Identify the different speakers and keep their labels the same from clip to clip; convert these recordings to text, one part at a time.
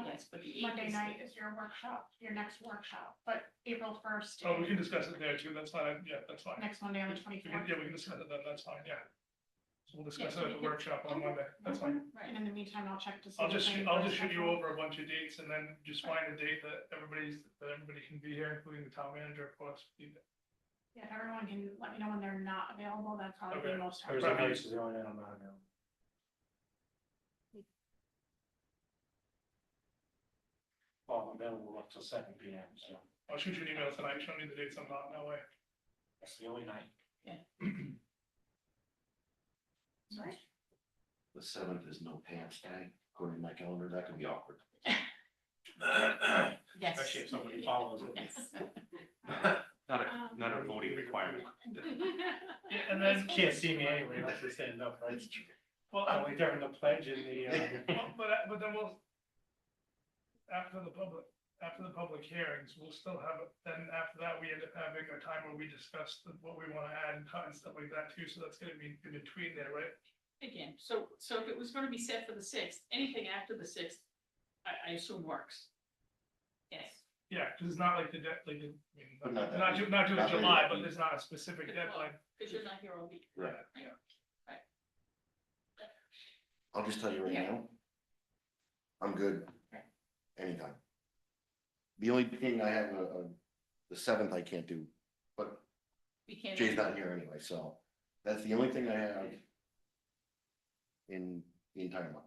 Speaker 1: minutes, but the Oh, Monday night is your workshop, your next workshop, but April first,
Speaker 2: Oh, we can discuss it there too, that's fine, yeah, that's fine.
Speaker 1: next Monday on the
Speaker 2: We
Speaker 1: twenty
Speaker 2: can-
Speaker 1: fourth.
Speaker 2: Yeah, we can discuss it, then, that's fine, yeah. So we'll discuss
Speaker 1: Yeah, we
Speaker 2: it at the
Speaker 1: can-
Speaker 2: workshop on Monday, that's fine.
Speaker 1: And in the meantime, I'll check to see.
Speaker 2: I'll
Speaker 1: if
Speaker 2: just,
Speaker 1: they-
Speaker 2: I'll just shoot you over a bunch of dates and then just find a date that everybody's, that everybody can be here, including the town manager, of course.
Speaker 1: Yeah, if everyone can let me know when they're not available, that's probably
Speaker 2: Okay.
Speaker 1: the most helpful.
Speaker 3: Thursday nights is the only night I'm not available. Well, I'm available up till seven P M, so
Speaker 2: I'll shoot you an email tonight, showing you the dates I'm not, that way.
Speaker 3: that's the only night.
Speaker 1: Right.
Speaker 4: The seventh is no pants day, according to my calendar, that could be awkward.
Speaker 5: Yes.
Speaker 3: Especially if somebody follows it.
Speaker 4: Not
Speaker 1: Um,
Speaker 4: not a voting requirement.
Speaker 2: Yeah, And then,
Speaker 3: Can't see me anyway, unless they stand up, right?
Speaker 2: well, I-
Speaker 3: Only during the pledge and the, uh,
Speaker 2: well, but, I- but then we'll. After the public, after the public hearings, we'll still have, it. then after that, we end up having a time where we discuss the- what we wanna add and cut and stuff like that too, so that's gonna be in between there, right?
Speaker 5: Again, so, so if it was gonna be set for the sixth, anything after the sixth, I, I assume works. Yes.
Speaker 2: Yeah, because it's not like the, de- like, the- I mean,
Speaker 4: But not that
Speaker 2: not,
Speaker 4: week.
Speaker 2: ju- not just
Speaker 4: Not that
Speaker 2: July,
Speaker 4: week.
Speaker 2: but there's not a specific
Speaker 5: Well,
Speaker 2: deadline.
Speaker 5: Cause you're not here all week.
Speaker 4: Right.
Speaker 5: Yeah. Right.
Speaker 4: I'll just tell you right
Speaker 5: Yeah.
Speaker 4: now. I'm good. Anytime. The only thing I have, uh, uh, the seventh I can't do, but
Speaker 5: We can't.
Speaker 4: Jay's not here anyway, so that's the only thing I have. In the entire month.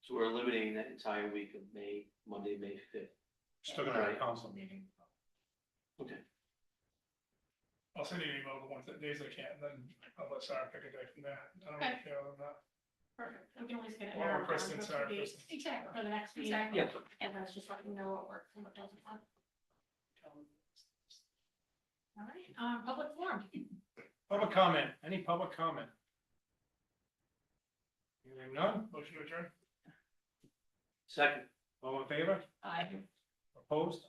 Speaker 6: So we're eliminating that entire week of May, Monday, May fifth.
Speaker 3: still gonna have a council meeting.
Speaker 2: I'll send you an email the ones that days I can, then I'll let Sarah pick a day from there. I don't really
Speaker 5: Okay.
Speaker 2: care on that.
Speaker 1: Perfect, we can always get it.
Speaker 2: Or
Speaker 1: narrowed down
Speaker 2: Kristen,
Speaker 1: to a few
Speaker 2: sorry,
Speaker 1: dates
Speaker 2: Kristen.
Speaker 1: Exactly, for the next meeting,
Speaker 5: Exactly.
Speaker 1: and let's just let you know what works and what doesn't work. All right, um, public forum,
Speaker 3: Public comment, any public comment? Hearing none,
Speaker 2: Motion to adjourn?
Speaker 6: Second,
Speaker 3: all in favor,
Speaker 5: I.
Speaker 3: opposed,